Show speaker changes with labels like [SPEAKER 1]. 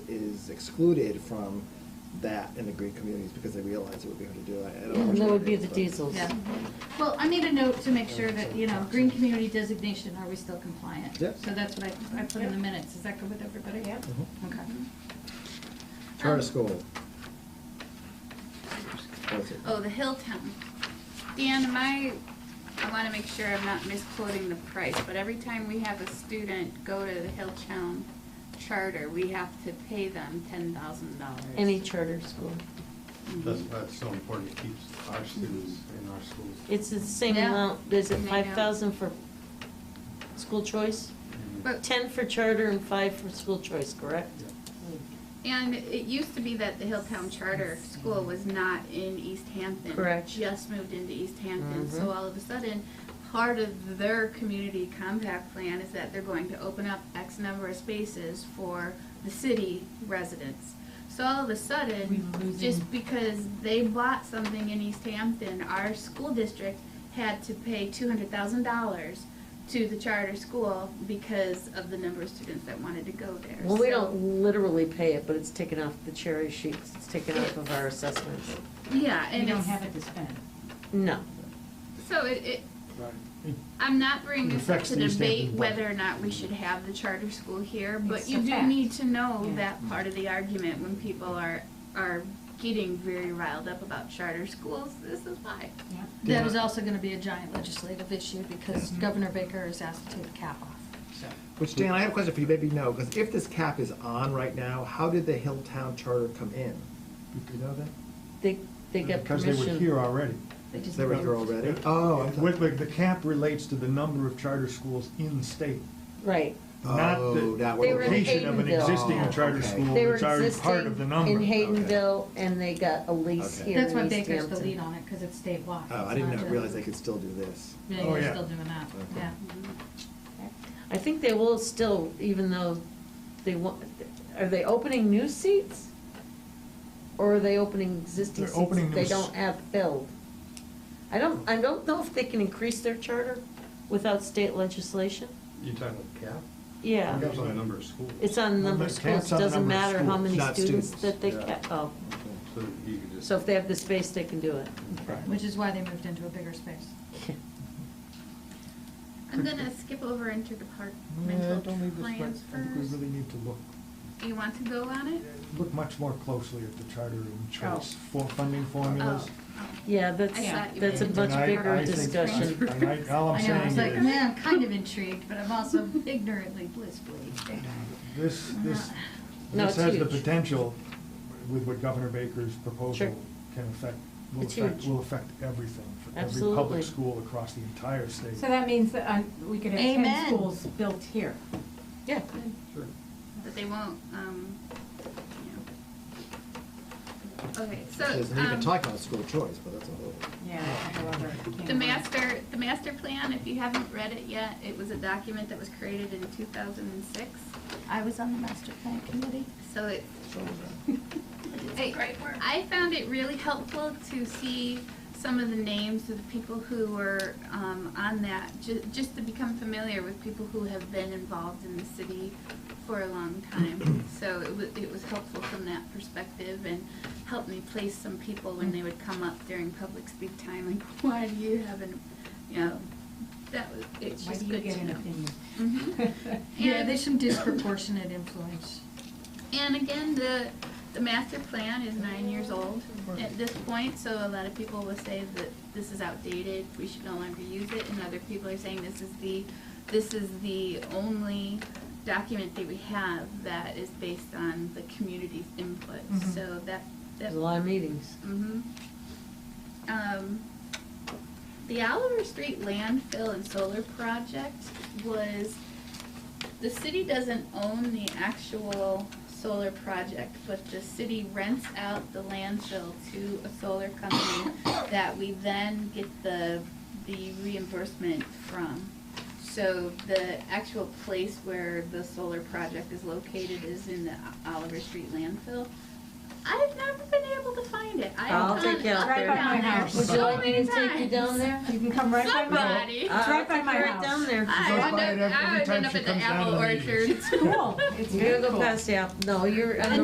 [SPEAKER 1] is excluded from that in the green communities because they realize it would be hard to do. I- I don't know
[SPEAKER 2] And
[SPEAKER 1] which
[SPEAKER 2] that
[SPEAKER 1] one
[SPEAKER 2] would
[SPEAKER 1] it
[SPEAKER 2] be
[SPEAKER 1] is,
[SPEAKER 2] the
[SPEAKER 1] but-
[SPEAKER 2] diesels.
[SPEAKER 3] Yeah. Well, I made a note to make sure that, you know, green community designation, are we still compliant?
[SPEAKER 1] Yeah.
[SPEAKER 3] So that's what I, I put in the minutes. Is that good with everybody?
[SPEAKER 4] Yeah.
[SPEAKER 1] Mhm.
[SPEAKER 3] Okay.
[SPEAKER 1] Charter
[SPEAKER 3] Um,
[SPEAKER 1] school. What is it?
[SPEAKER 5] Oh, the Hilltown. Dan, am I, I want to make sure I'm not misquoting the price, but every time we have a student go to the Hilltown charter, we have to pay them ten thousand dollars.
[SPEAKER 2] Any charter school.
[SPEAKER 6] That's why it's so important, it keeps our students in our schools.
[SPEAKER 2] It's the same
[SPEAKER 5] Yeah.
[SPEAKER 2] amount, is it
[SPEAKER 5] I know.
[SPEAKER 2] five thousand for school choice?
[SPEAKER 5] But-
[SPEAKER 2] Ten for charter and five for school choice, correct?
[SPEAKER 5] And it used to be that the Hilltown Charter School was not in East Hampton.
[SPEAKER 2] Correct.
[SPEAKER 5] Just moved into East Hampton, so
[SPEAKER 2] Mhm.
[SPEAKER 5] all of a sudden, part of their community compact plan is that they're going to open up X number of spaces for the city residents. So all of a sudden, just because they bought something in East Hampton, our school district had to pay two hundred thousand dollars to the charter school because of the number of students that wanted to go there.
[SPEAKER 2] Well, we
[SPEAKER 5] So-
[SPEAKER 2] don't literally pay it, but it's taken off the cherry sheets, it's taken off of our assessments.
[SPEAKER 5] Yeah,
[SPEAKER 4] You
[SPEAKER 5] and
[SPEAKER 4] don't
[SPEAKER 5] it's,
[SPEAKER 4] have it to spend.
[SPEAKER 2] No,
[SPEAKER 5] so it, it, I'm not bringing
[SPEAKER 7] It
[SPEAKER 5] this up
[SPEAKER 7] affects
[SPEAKER 5] to
[SPEAKER 7] the state
[SPEAKER 5] debate
[SPEAKER 7] budget.
[SPEAKER 5] whether or not we should have the charter school here, but
[SPEAKER 4] It's
[SPEAKER 5] you
[SPEAKER 4] a
[SPEAKER 5] do
[SPEAKER 4] fact.
[SPEAKER 5] need to know
[SPEAKER 4] Yeah.
[SPEAKER 5] that part of the argument when people are, are getting very riled up about charter schools, this is why.
[SPEAKER 4] Yeah.
[SPEAKER 3] That was also gonna be a giant legislative issue because
[SPEAKER 4] Mm-hmm.
[SPEAKER 3] Governor Baker is asked to take the cap off, so.
[SPEAKER 1] Which, Dan, I have a question for you, maybe no, because if this cap is on right now, how did the Hilltown charter come in? Do you know that?
[SPEAKER 2] they, they get permission.
[SPEAKER 6] Because they were here already.
[SPEAKER 3] just
[SPEAKER 1] They were here already? Oh, I'm
[SPEAKER 6] With-
[SPEAKER 1] sorry.
[SPEAKER 6] with- The cap relates to the number of charter schools in state,
[SPEAKER 2] Right,
[SPEAKER 6] not
[SPEAKER 1] Oh,
[SPEAKER 6] the
[SPEAKER 1] that way.
[SPEAKER 2] They were in
[SPEAKER 6] location of an
[SPEAKER 2] Haydenville.
[SPEAKER 6] existing
[SPEAKER 1] Oh,
[SPEAKER 6] charter
[SPEAKER 1] okay.
[SPEAKER 6] school
[SPEAKER 2] they were
[SPEAKER 6] that's already
[SPEAKER 2] existing
[SPEAKER 6] part of the number.
[SPEAKER 2] in Haydenville, and they got a lease
[SPEAKER 1] Okay.
[SPEAKER 2] here in
[SPEAKER 3] That's
[SPEAKER 2] East
[SPEAKER 3] why
[SPEAKER 2] Hampton.
[SPEAKER 3] Baker's the lead on it, because it's statewide.
[SPEAKER 1] Oh, I
[SPEAKER 3] It's
[SPEAKER 1] didn't
[SPEAKER 3] not
[SPEAKER 1] know-
[SPEAKER 3] just-
[SPEAKER 1] realize they could still do this.
[SPEAKER 3] Yeah,
[SPEAKER 6] Oh,
[SPEAKER 3] you're
[SPEAKER 6] yeah.
[SPEAKER 3] still doing that,
[SPEAKER 1] Okay.
[SPEAKER 3] yeah.
[SPEAKER 2] I think they will still, even though they want, are they opening new seats? Or are they opening existing
[SPEAKER 6] They're
[SPEAKER 2] seats
[SPEAKER 6] opening
[SPEAKER 2] that they
[SPEAKER 6] new s-
[SPEAKER 2] don't have filled? I don't, I don't know if they can increase their charter without state legislation.
[SPEAKER 6] You're talking about cap?
[SPEAKER 2] Yeah,
[SPEAKER 6] Cap's on the number of schools.
[SPEAKER 2] it's on the
[SPEAKER 6] Well,
[SPEAKER 2] number of
[SPEAKER 6] the
[SPEAKER 2] schools,
[SPEAKER 6] cap's on the
[SPEAKER 2] doesn't
[SPEAKER 6] number of
[SPEAKER 2] matter how
[SPEAKER 6] schools,
[SPEAKER 2] many
[SPEAKER 1] not
[SPEAKER 2] students
[SPEAKER 1] students.
[SPEAKER 2] that they ca,
[SPEAKER 6] Yeah.
[SPEAKER 2] oh.
[SPEAKER 6] So you could just.
[SPEAKER 2] So if they have the space, they can do it.
[SPEAKER 3] Yeah, which is why they moved into a bigger space.
[SPEAKER 5] I'm gonna skip over
[SPEAKER 6] Yeah,
[SPEAKER 5] interdepartmental
[SPEAKER 6] don't leave this, but
[SPEAKER 5] plans
[SPEAKER 6] I think we
[SPEAKER 5] first.
[SPEAKER 6] really need to look
[SPEAKER 5] Do you want to go on it?
[SPEAKER 6] look much more closely at the charter and choice
[SPEAKER 2] Oh.
[SPEAKER 6] for funding formulas.
[SPEAKER 5] Oh, oh.
[SPEAKER 2] Yeah, that's,
[SPEAKER 5] I thought you
[SPEAKER 2] that's a
[SPEAKER 5] meant-
[SPEAKER 2] much
[SPEAKER 6] And I- I
[SPEAKER 2] bigger
[SPEAKER 6] think-
[SPEAKER 2] discussion.
[SPEAKER 6] And I, all I'm
[SPEAKER 3] I know, I was like,
[SPEAKER 6] saying is,
[SPEAKER 3] man, I'm kind of intrigued, but I'm also ignorantly blissfully ignorant.
[SPEAKER 6] this, this,
[SPEAKER 2] Uh, No,
[SPEAKER 6] this
[SPEAKER 2] it's
[SPEAKER 6] has the
[SPEAKER 2] huge.
[SPEAKER 6] potential with what Governor Baker's proposal
[SPEAKER 2] Sure.
[SPEAKER 6] can affect, will
[SPEAKER 2] It's
[SPEAKER 6] affect,
[SPEAKER 2] huge.
[SPEAKER 6] will affect everything for every
[SPEAKER 2] Absolutely.
[SPEAKER 6] public school across the entire state.
[SPEAKER 4] So that means that uh, we could have
[SPEAKER 3] Amen.
[SPEAKER 4] ten schools built here.
[SPEAKER 2] Yeah,
[SPEAKER 6] Sure.
[SPEAKER 5] But they won't, um, yeah. Okay, so,
[SPEAKER 1] It Doesn't even
[SPEAKER 5] um,
[SPEAKER 1] talk about school choice, but that's a whole.
[SPEAKER 4] Yeah. however, it came
[SPEAKER 5] The
[SPEAKER 4] out.
[SPEAKER 5] master, the master plan, if you haven't read it yet, it was a document that was created in two thousand and six.
[SPEAKER 3] I was on the master plan committee.
[SPEAKER 5] So it,
[SPEAKER 3] It's
[SPEAKER 5] I,
[SPEAKER 3] great work.
[SPEAKER 5] I found it really helpful to see some of the names of the people who were, um, on that, ju- just to become familiar with people who have been involved in the city for a long time. So it was, it was helpful from that perspective and helped me place some people when they would come up during public speak time, like, why do you have an, you know, that was, it's
[SPEAKER 4] Why
[SPEAKER 5] just
[SPEAKER 4] do you
[SPEAKER 5] good
[SPEAKER 4] get
[SPEAKER 5] to
[SPEAKER 4] an
[SPEAKER 5] know.
[SPEAKER 4] opinion?
[SPEAKER 5] Mhm.
[SPEAKER 3] Yeah, there's some disproportionate influence.
[SPEAKER 5] And again, the, the master plan is nine years old at this point, so a lot of people will say that this is outdated, we should no longer use it, and other people are saying this is the, this is the only document that we have that is based on the community's input,
[SPEAKER 4] Mhm.
[SPEAKER 5] so that, that
[SPEAKER 2] there's a lot of meetings.
[SPEAKER 5] hmm Um, the Oliver Street landfill and solar project was, the city doesn't own the actual solar project, but the city rents out the landfill to a solar company that we then get the, the reimbursement from. So the actual place where the solar project is located is in the Oliver Street landfill. I've never been able to find it. I've
[SPEAKER 2] I'll
[SPEAKER 5] gone
[SPEAKER 2] take you out
[SPEAKER 5] up
[SPEAKER 2] there.
[SPEAKER 5] and down
[SPEAKER 4] Right by my house.
[SPEAKER 2] Would you
[SPEAKER 5] so
[SPEAKER 2] like me to
[SPEAKER 5] many
[SPEAKER 2] take you
[SPEAKER 5] times.
[SPEAKER 2] down there?
[SPEAKER 4] You can come right by my.
[SPEAKER 5] Somebody.
[SPEAKER 2] Uh,
[SPEAKER 4] right by
[SPEAKER 2] I'll
[SPEAKER 4] my
[SPEAKER 2] take you Right
[SPEAKER 4] house.
[SPEAKER 2] down there.
[SPEAKER 5] I
[SPEAKER 6] goes
[SPEAKER 5] would
[SPEAKER 6] by it
[SPEAKER 5] end up,
[SPEAKER 6] every
[SPEAKER 5] I would
[SPEAKER 6] time
[SPEAKER 5] end up
[SPEAKER 6] she
[SPEAKER 5] at the
[SPEAKER 6] comes down
[SPEAKER 5] apple
[SPEAKER 6] to the meetings.
[SPEAKER 5] orchard.
[SPEAKER 4] Cool. It's
[SPEAKER 2] You're gonna
[SPEAKER 4] very
[SPEAKER 2] go
[SPEAKER 4] cool.
[SPEAKER 2] past the apple, no, you're, I
[SPEAKER 5] And